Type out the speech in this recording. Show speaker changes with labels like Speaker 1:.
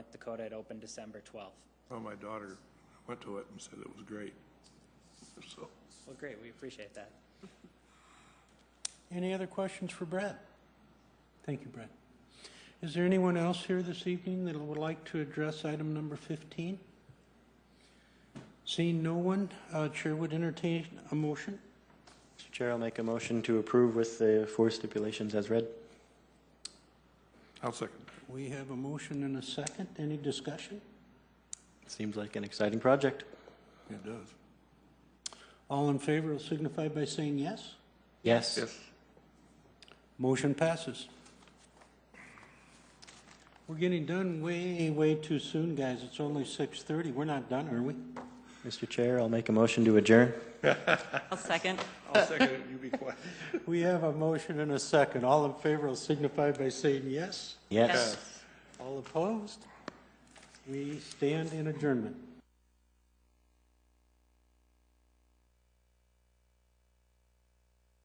Speaker 1: North Dakota. It opened December 12th.
Speaker 2: Well, my daughter went to it and said it was great. So,
Speaker 1: Well, great, we appreciate that.
Speaker 3: Any other questions for Brett? Thank you, Brett. Is there anyone else here this evening that would like to address item number 15? Seeing no one, uh, Chair would entertain a motion.
Speaker 4: Mr. Chair, I'll make a motion to approve with the four stipulations as read.
Speaker 2: I'll second.
Speaker 3: We have a motion and a second. Any discussion?
Speaker 4: Seems like an exciting project.
Speaker 2: It does.
Speaker 3: All in favor will signify by saying yes.
Speaker 4: Yes.
Speaker 3: Motion passes. We're getting done way, way too soon, guys. It's only 6:30. We're not done, are we?
Speaker 4: Mr. Chair, I'll make a motion to adjourn.
Speaker 5: I'll second.
Speaker 2: I'll second it, you be quiet.
Speaker 3: We have a motion and a second. All in favor will signify by saying yes.
Speaker 4: Yes.
Speaker 5: Yes.
Speaker 3: All opposed? We stand in adjournment.